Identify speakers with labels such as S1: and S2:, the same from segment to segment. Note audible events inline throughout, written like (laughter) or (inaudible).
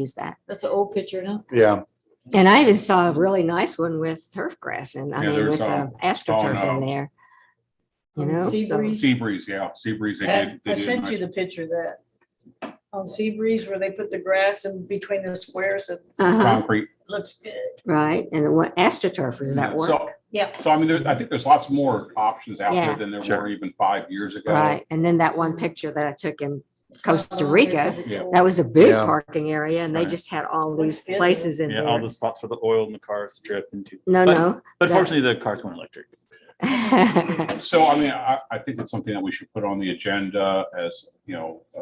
S1: use that.
S2: That's an old picture, huh?
S3: Yeah,
S1: And I just saw a really nice one with turf grass and I
S4: Yeah,
S1: mean,
S4: there's
S1: with uh,
S4: some-
S1: astroturf in
S4: no.
S1: there. You
S2: Um,
S1: know,
S2: sea
S1: so,
S2: breeze.
S4: Sea breeze, yeah, sea breeze. they
S2: I
S4: did- they
S2: I
S4: did a
S2: sent you
S4: nice-
S2: the picture of that on Sea Breeze where they put the grass in between the squares. It
S1: uh-huh,
S4: Concrete.
S2: looks good.
S1: right. And the one astroturf, does that
S4: So-
S1: work?
S2: Yeah.
S4: So I mean, there, I think there's lots more options out
S1: Yeah.
S4: there than there were even five years ago.
S1: Right. And then that one picture that I took in,
S2: It's not
S1: Costa
S2: on there
S1: Rica.
S2: 'cause it's
S4: Yeah.
S2: old.
S1: that was a big
S3: Yeah.
S1: parking area and they
S4: Right.
S1: just had all
S2: Looks
S1: these
S2: good, though.
S1: places in
S5: Yeah, all
S1: there.
S5: the spots for the oil and the cars to drift into.
S1: No,
S5: But-
S1: no. (laughs)
S5: But
S1: that-
S5: fortunately, the cars went electric.
S4: So I mean, I, I think it's something that we should put on the agenda as, you know, uh,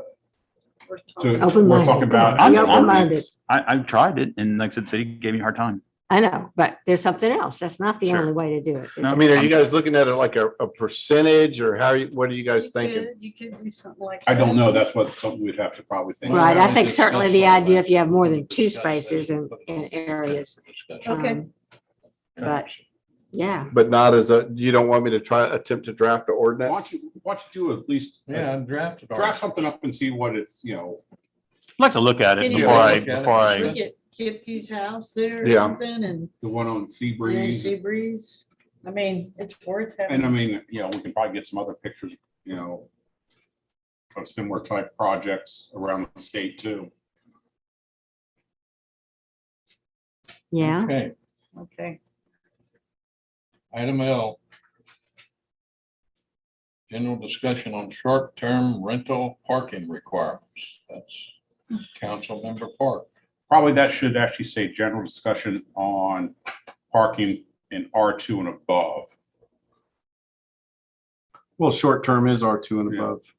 S2: We're talking-
S4: to,
S1: Open
S4: we're
S1: minded.
S4: talking about.
S5: I'm
S4: as an
S1: open-minded.
S4: ordinance.
S5: I, I tried it and like I said, city gave me a hard time.
S1: I know, but there's something else. That's not the
S5: Sure.
S1: only way to do it.
S5: No.
S3: I mean, are you guys looking at it like a, a percentage or how, are you- what are you guys
S2: You
S3: thinking?
S2: could- You could do something like.
S4: I don't
S2: that.
S4: know. That's what, something we'd have to probably think.
S1: Right, I
S4: about.
S1: think certainly the
S6: discuss
S1: idea, if you have more
S6: that.
S1: than two
S6: Discuss that.
S1: spaces in, in areas.
S2: Okay.
S1: um, But, yeah,
S3: But not as a, you don't want me to try, attempt to draft an
S4: Why
S3: ordinance?
S4: don't you, why don't you do at least uh,
S6: Yeah, I'm drafted.
S4: draft something up and see what it's, you know,
S5: I'd like to look at it
S2: Can you
S5: before I,
S6: look at it?
S5: before I,
S2: Look at Kipke's house there or
S3: Yeah.
S2: something and
S4: the one on
S2: and then
S4: Seabreeze.
S2: Sea Breeze. I mean, it's worth
S4: And I
S2: having.
S4: mean, you know, we can probably get some other pictures, you know, of similar type projects around the state too.
S1: yeah.
S6: Okay,
S2: Okay.
S6: item L. General discussion on short-term rental parking requirements. That's Councilmember Park.
S4: Probably that should actually say general discussion on parking in R two and above.
S3: Well, short term is R two and
S4: Yeah.
S3: above.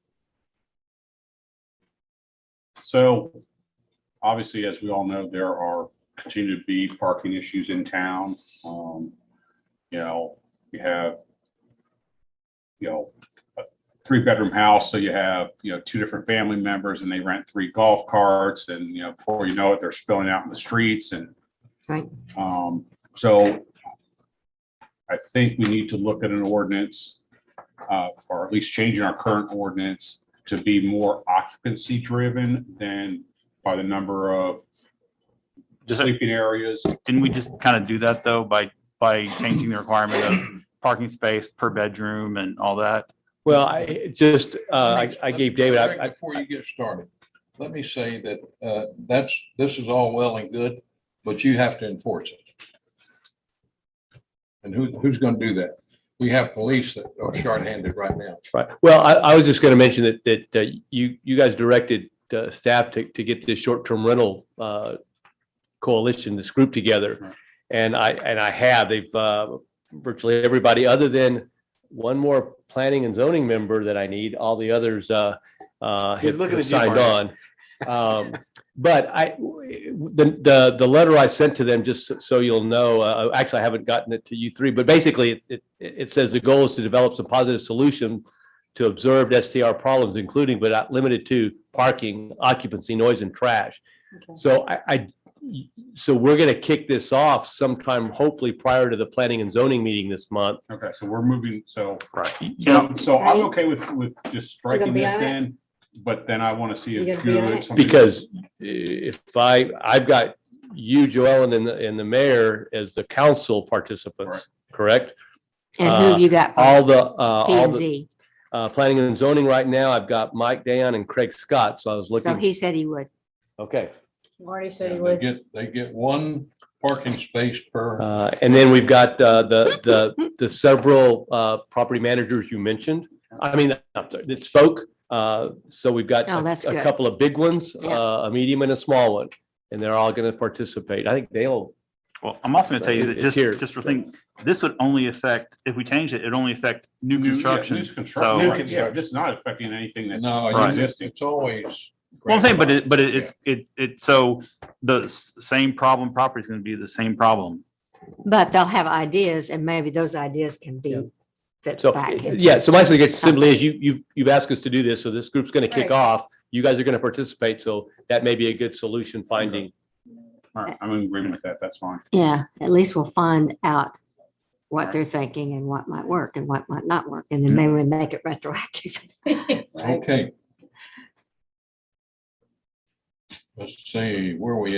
S4: So obviously, as we all know, there are continue to be parking issues in town. Um, you know, you have, you know, a three-bedroom house, so you have, you know, two different family members and they rent three golf carts and, you know, before you know it, they're spilling out in the streets and
S1: Right.
S4: um, so I think we need to look at an ordinance, uh, or at least changing our current ordinance to be more occupancy driven than by the number of
S5: Just-
S4: sleeping areas.
S5: didn't we just kind of do that though by, by changing the requirement of parking space per bedroom and all that?
S7: Well, I it just, uh, I, I gave David, I, I-
S6: Before you get started, let me say that, uh, that's, this is all well and good, but you have to enforce it. And who, who's gonna do that? We have police that are shorthanded right now.
S7: right. well, I, I was just going to mention that, that uh, you, you guys directed uh, staff to, to get this short-term rental uh, coalition, this group together.
S4: Right.
S7: And I, and I have, they've uh, virtually everybody, other than one more planning and zoning member that I need, all the others uh, uh,
S3: He's
S7: have
S3: looking
S7: have
S3: at you,
S7: signed on. Um, But I, the, the, the letter I sent to them, just so you'll know, uh, actually, I haven't gotten it to you three, but basically, it, it, it says the goal is to develop some positive solution to observed STR problems, including but not limited to parking, occupancy, noise, and trash.
S2: Okay.
S7: So I, I, so we're gonna kick this off sometime, hopefully prior to the planning and zoning meeting this month.
S4: Okay, so we're moving, so,
S5: Right.
S4: so so I'm okay with, with just striking
S1: be
S4: this
S1: on it?
S4: then, but then I want to see
S1: You're
S4: if
S1: gonna be on
S4: Julie-
S1: it?
S4: somebody-
S7: Because if I, I've got you, Joellen, and, the- and the mayor as the council participants, correct?
S1: And who have you got?
S7: All the, uh, all
S1: P and
S7: the,
S1: Z.
S7: uh, planning and zoning right now, I've got Mike Dayan and Craig Scott, so I was
S1: So
S7: looking,
S1: he said he would.
S7: okay.
S2: Marty said he
S6: They
S2: would.
S6: get, they get one parking space per.
S7: Uh, and then we've got, uh, the, the, the several, uh, property managers you mentioned. I mean, I'm sorry, it's folk, uh, so we've got
S1: Oh, that's
S7: a- a
S1: good.
S7: couple of big ones,
S1: Yeah.
S7: uh, a medium and a small one, and they're all gonna participate. I think they'll,
S5: Well, I'm also gonna tell you that
S7: It's
S5: just,
S7: here.
S5: just for things, this would only affect, if we change it, it'd only affect new
S4: New- yeah, new
S5: construction.
S4: construct-
S5: So,
S4: new
S5: well,
S4: construct- Yeah, this is not affecting anything that's
S6: No,
S5: Right.
S6: you-
S4: existing.
S6: it's always.
S5: I'm saying, but it, but it- it's, it, it, so the s- same problem property is gonna be the same problem.
S1: But they'll have ideas and maybe those ideas can be
S7: Yeah.
S1: fit
S7: so,
S1: back. into-
S7: yeah, so my suggestion simply is you, you've, you've asked us to do this, so this group's gonna kick
S2: Right.
S7: off. You guys are gonna participate, so that may be a good solution finding.
S4: All right, I'm in agreement with that. That's fine.
S1: Yeah, at least we'll find out what
S4: Right.
S1: they're thinking and what might work and what might not work.
S7: Mm-hmm.
S1: And then maybe we make it
S2: (laughs)
S1: retroactive.
S6: Okay. Let's see, where are we at?